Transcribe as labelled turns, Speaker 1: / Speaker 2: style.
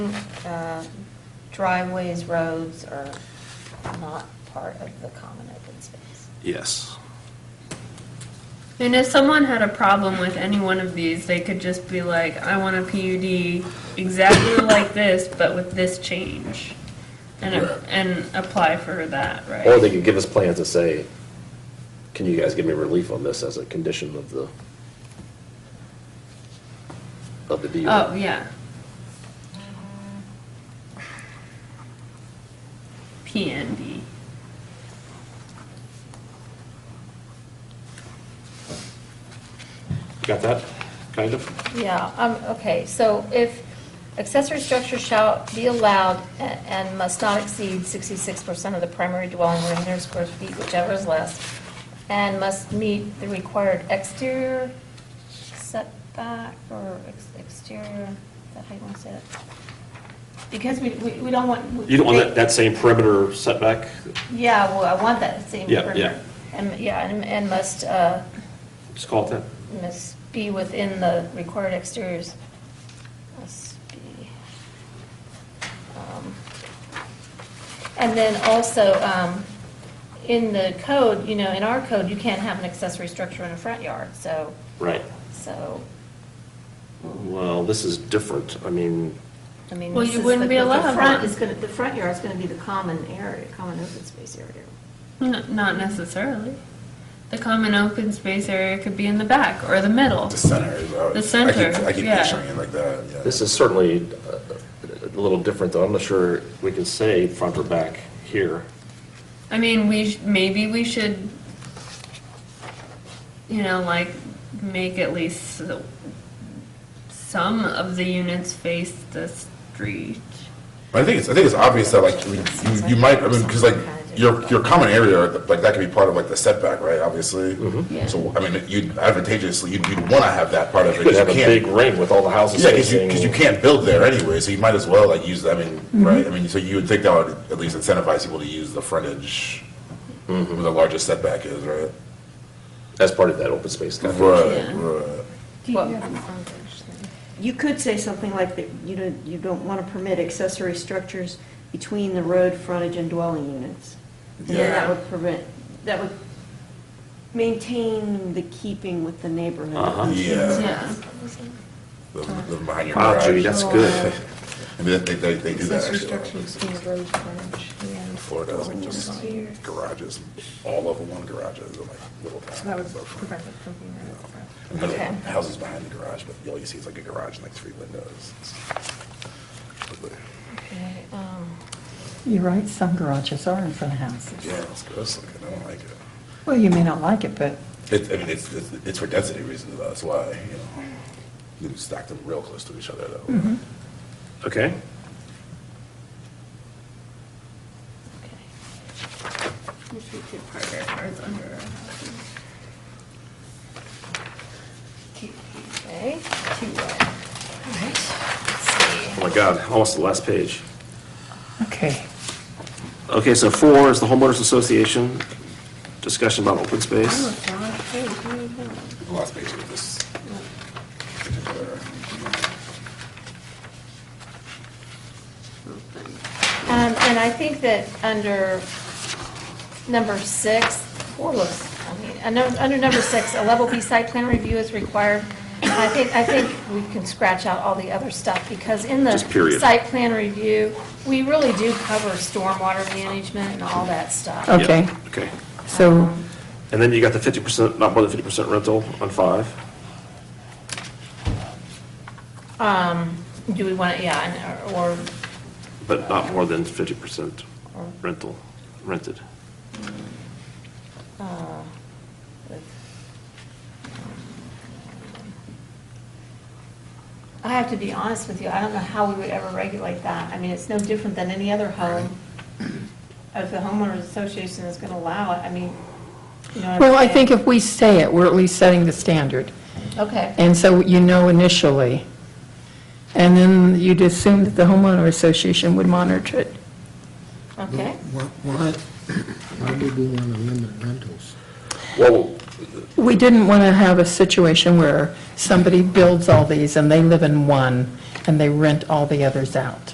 Speaker 1: uh, driveways, roads are not part of the common open space.
Speaker 2: Yes.
Speaker 3: And if someone had a problem with any one of these, they could just be like, I want a PUD exactly like this, but with this change. And, a- and apply for that, right?
Speaker 4: Or they could give us plans that say, can you guys give me relief on this as a condition of the, of the deal?
Speaker 3: Oh, yeah. PND.
Speaker 2: Got that, kind of?
Speaker 1: Yeah, um, okay, so if accessory structures shall be allowed a- and must not exceed sixty-six percent of the primary dwelling or hundred square feet, whichever is less, and must meet the required exterior setback or ex- exterior, is that how you want to say that? Because we, we we don't want. we-
Speaker 2: You don't want that, that same perimeter setback?
Speaker 1: Yeah, well, I want that same.
Speaker 2: Yeah,
Speaker 1: perimeter.
Speaker 2: yeah.
Speaker 1: And, yeah, and- and must, uh,
Speaker 2: Just call it that?
Speaker 1: must be within the required exteriors. Must be. um, And then also, um, in the code, you know, in our code, you can't have an accessory structure in a front yard, so,
Speaker 2: Right.
Speaker 1: so,
Speaker 2: Well, this is different. I mean,
Speaker 1: I mean.
Speaker 3: Well,
Speaker 1: this
Speaker 3: you
Speaker 1: is
Speaker 3: wouldn't
Speaker 1: the-
Speaker 3: be
Speaker 1: the
Speaker 3: allowed
Speaker 1: front
Speaker 3: one.
Speaker 1: is gonna, the front yard's gonna be the common area, common open space area.
Speaker 3: N- Not necessarily. The common open space area could be in the back or the middle.
Speaker 5: The center is out.
Speaker 3: The center,
Speaker 5: I keep, I keep
Speaker 3: yeah.
Speaker 5: picturing it like that, yeah.
Speaker 4: This is certainly uh, a little different, though. I'm not sure,
Speaker 2: we can say front or back here.
Speaker 3: I mean, we, sh- maybe we should, you know, like, make at least the- some of the units face the street.
Speaker 5: But I think it's, I think it's obvious that like, we- you, you might, I mean, because like, your, your common area, like, that could be part of like the setback, right, obviously?
Speaker 4: Mm-hmm.
Speaker 3: Yeah.
Speaker 5: So, I mean, you'd advantageously, you'd, you'd want to have that part of it. 'cause
Speaker 4: could
Speaker 5: you
Speaker 4: have a
Speaker 5: can't-
Speaker 4: big ring with all the houses
Speaker 5: Yeah, because you, because you
Speaker 4: facing.
Speaker 5: can't build there anyway, so you might as well like use, I mean,
Speaker 3: Mm-hmm.
Speaker 5: right, I mean, so you would think that would at least incentivize people to use the frontage where
Speaker 4: Mm-hmm.
Speaker 5: the largest setback is, right?
Speaker 4: As part of that open space. definition.
Speaker 5: Right,
Speaker 3: Yeah.
Speaker 5: right.
Speaker 6: You could say something like that, you don't, you don't want to permit accessory structures between the road frontage and dwelling units. And then
Speaker 5: Yeah.
Speaker 6: that would prevent, that would maintain the keeping with the neighborhood.
Speaker 2: Uh-huh.
Speaker 5: Yeah,
Speaker 3: Yeah.
Speaker 5: Live- live behind your
Speaker 2: Wow, Judy,
Speaker 5: garage.
Speaker 2: that's good.
Speaker 5: I mean, they, they, they do that
Speaker 7: Accessory
Speaker 5: actually. a lot.
Speaker 7: structures in the road frontage, yeah.
Speaker 5: Florida has like
Speaker 7: Over
Speaker 5: just
Speaker 7: here.
Speaker 5: garages, all over one garage, is like little town.
Speaker 7: So that would prevent it from being right up front.
Speaker 5: And there's
Speaker 1: Okay.
Speaker 5: Houses behind the garage, but all you see is like a garage and like three windows. It's ugly.
Speaker 1: Okay, um,
Speaker 7: You're right, some garages are in front of houses.
Speaker 5: Yeah, it's gross looking, I don't like it.
Speaker 7: Well, you may not like it, but
Speaker 5: It, I mean, it's, it's, it's for density reasons, though, that's why, you know. You stack them real close to each other,
Speaker 7: Mm-hmm.
Speaker 5: though.
Speaker 2: Okay?
Speaker 1: okay.
Speaker 3: Which we could park our cars under our houses.
Speaker 1: Okay, two, uh, all right, let's see.
Speaker 2: Oh my God, almost the last page.
Speaker 7: okay.
Speaker 2: Okay, so four is the homeowners association, discussion about open space.
Speaker 5: The last page of this.
Speaker 1: Um, and I think that under number six, four looks, I mean, I know- under number six, a level B site plan review is required. I think, I think we can scratch out all the other stuff, because in the
Speaker 2: Just period.
Speaker 1: site plan review, we really do cover stormwater management and all that stuff.
Speaker 2: Yeah,
Speaker 7: Okay.
Speaker 2: Okay.
Speaker 7: So
Speaker 2: And then you got the 50%, not more than 50% rental on five.
Speaker 1: Um, Do we want, to? yeah, and- or,
Speaker 2: But not more than fifty percent rental, rented.
Speaker 1: I have to be honest with you, I don't know how we would ever regulate that. I mean, it's no different than any other home. If the homeowners association is gonna allow it, I mean, you know what I'm
Speaker 7: Well, I
Speaker 1: saying?
Speaker 7: think if we say it, we're at least setting the standard.
Speaker 1: Okay.
Speaker 7: And so you know initially. And then you'd assume that the homeowner association would monitor it.
Speaker 1: Okay,
Speaker 8: Why, why why would we want to limit rentals?
Speaker 4: Well,
Speaker 7: We didn't want to have a situation where somebody builds all these and they live in one and they rent all the others out.